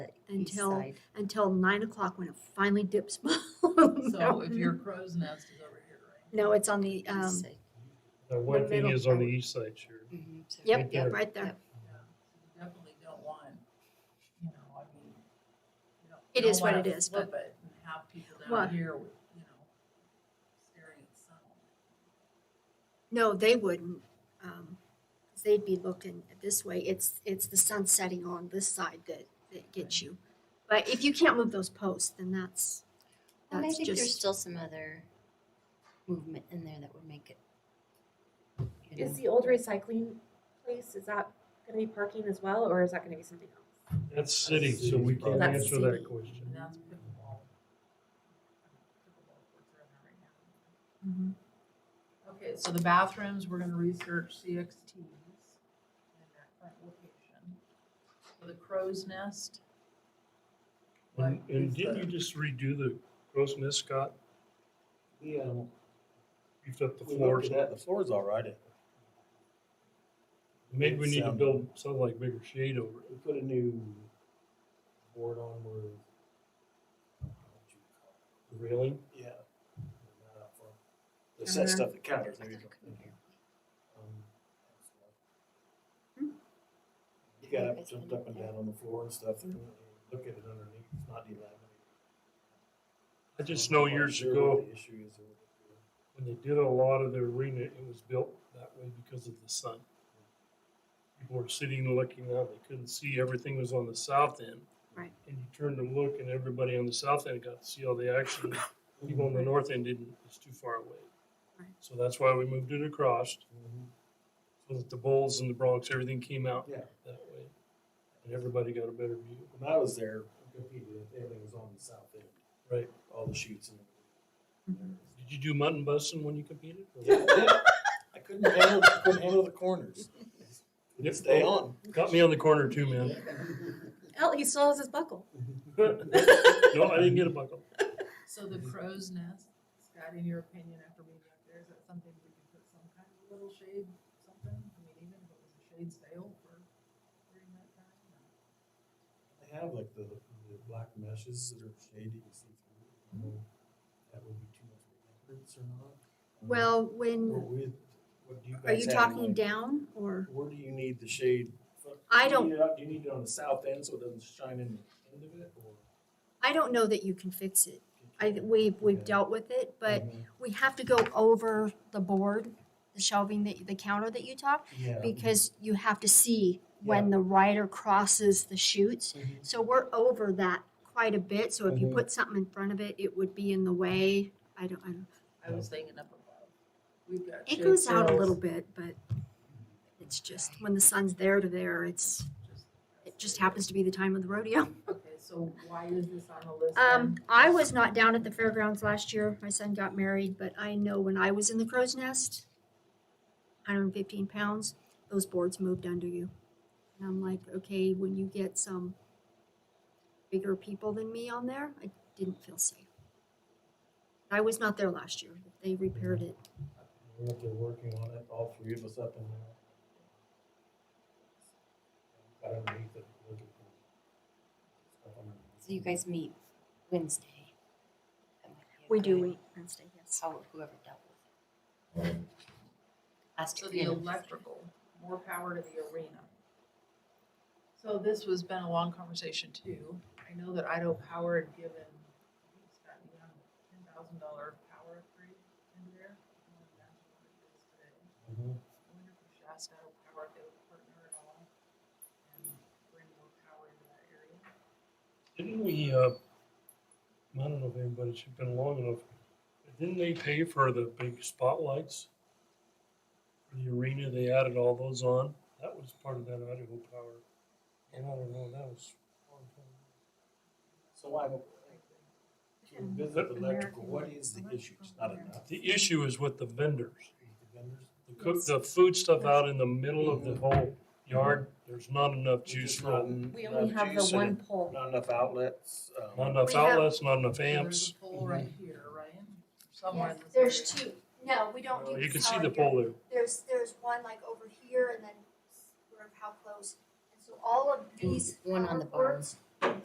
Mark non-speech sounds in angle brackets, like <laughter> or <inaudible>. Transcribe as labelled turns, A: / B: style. A: east
B: until,
A: side.
B: until nine o'clock when it finally dips <laughs> below. the
C: So if
B: mountain.
C: your crow's nest is over here, right?
B: No, it's on the,
A: east
B: um,
A: side.
D: The one thing
B: middle
D: is on the
B: part.
D: east side, sure.
A: Mhm, so
B: yep,
D: right
B: yep,
D: there.
B: right there.
A: Yep.
C: Yeah. You Definitely don't want, you know, I mean. you don't-
B: It
C: you
B: is
C: don't
B: what
C: wanna
B: it is,
C: flip it And have people
B: Well-
C: down here with, you know, staring at the sun.
B: No, they wouldn't. um, 'cause They'd be looking this way. It's, it's the sun setting on this side that, that gets you. But if you can't move those posts, then that's,
A: And I
B: that's
A: think there's
B: just,
A: still some other movement in there that would make it. you know.
E: Is the old recycling place, is that gonna be parking as well, or is that gonna be something else?
D: That's city, so we
E: problem.
D: can't
E: That's
D: answer that
E: city.
C: And
D: question.
C: that's pickleball. Pickleball courts are in there right now.
B: Mhm.
C: Okay, so the bathrooms, we're gonna research CXTs in that front location. For the crow's nest. what
D: And, and
C: is
D: didn't
C: the-
D: you just redo the gross miss, Scott?
F: Yeah,
D: Beefed up the
F: um, we looked
D: floors.
F: at that, the floor's all right.
D: Maybe we need to
F: Sound.
D: build something like bigger shade over it.
F: We put a new board on uh, where.
D: The railing,
F: Yeah. The set stuff that counters, there you go. Um, You got up, jumped up and down on the floor and stuff, and look at it underneath, it's not delaminated.
D: I just know years
F: Sure
D: ago.
F: what The issue is.
D: when they did a lot of the arena, it was built that way because of the sun. People were sitting and looking out, they couldn't see, everything was on the south end.
B: Right.
D: And you turned to look and everybody on the south end got to see all the action, people on the north end didn't, it's too far away.
B: Right.
D: So that's why we moved it across,
F: Mhm.
D: so that the Bulls and the Bronx, everything came out
F: Yeah.
D: that way. And everybody got a better view.
F: When I was there, I competed, everything was on the south end,
D: Right.
F: all the shoots and everything.
D: Did you do mutton busting when you competed?
F: Yeah, I did. <laughs> I couldn't handle, couldn't handle the corners. Couldn't stay on.
D: Got me on the corner too, man.
E: Oh, he still has his buckle.
D: <laughs>
F: <laughs>
D: No, I didn't get a buckle.
C: So the crow's nest, Scott, in your opinion, after being out there, is that something we could put some kind of little shade, something? I mean, even if it was a shade sale for during that time? or-
F: They have like the, the black meshes that are shady, you see through. I don't know if That would be too much of a hindrance or not. Um,
B: well,
F: Or
B: when,
F: with, what do you
B: are you
F: guys have
B: talking
F: in mind?
B: down or?
F: Where do you need the shade?
B: I
F: Do you
B: don't-
F: need it up- Do you need it on the south end so it doesn't shine in the end of it or?
B: I don't know that you can fix it. I, we've, we've
F: Okay.
B: dealt with it, but
F: Mhm.
B: we have to go over the board, the shelving, that the counter that you talked,
F: Yeah.
B: because you have to see when the rider crosses the chutes.
F: Mhm.
B: So we're over that quite a bit, so if you
F: Mhm.
B: put something in front of it, it would be in the way. I don't, I don't,
C: I was thinking up above. We've got
B: it
C: shade
B: goes out a
C: sails,
B: little bit, but it's just, when the sun's there to there, it's,
C: just-
B: it just happens to be the time of the rodeo.
C: Okay, so why is this on the list?
B: Um,
C: then?
B: I was not down at the fairgrounds last year. My son got married, but I know when I was in the crow's nest, 115 pounds, those boards moved under you. And I'm like, okay, when you get some bigger people than me on there, I didn't feel safe. I was not there last year. They repaired it.
F: We're up there working on it, all three of us up in there. Got underneath it, looking for stuff underneath.
A: So you guys meet Wednesday. That might be a
B: We do
A: good-
B: meet Wednesday, yes.
A: How, whoever dealt with it. Last
C: So
A: year.
C: the electrical, more power to the arena. So this was been a long conversation too. I know that Idaho Power had given, I think it's got beyond ten thousand dollar power upgrade in there. I can't imagine what it is today.
F: Mhm.
C: I wonder if we should ask Idaho Power if they would partner at all and bring more power into that area.
D: Didn't we, uh, I don't know if anybody's been long enough, but didn't they pay for the big spotlights? For the arena, they added all those on. That was part of that Idaho power. And I don't know, that was. a long time ago.
F: So I, to visit the electrical, what is the issue? It's not enough.
D: The issue is with the vendors.
F: The vendors?
D: The cook, the food stuff out in the middle of the whole yard, there's not enough juice,
F: Just
D: not
F: not-
E: We
F: not
E: only have the
F: juice and
E: one pole.
F: Not enough outlets. um,
D: not enough
B: We have-
D: outlets, not enough
C: So There's
D: amps.
C: a pole right here, right? Somewhere in this area.
B: There's two. No, we don't
F: Well,
B: do
D: Uh, You can
B: this
D: see
B: out
D: the
B: here.
D: pole there.
B: There's, there's one like over here and then sort of how close. And so all of
A: And
B: these
A: one on the
B: power cords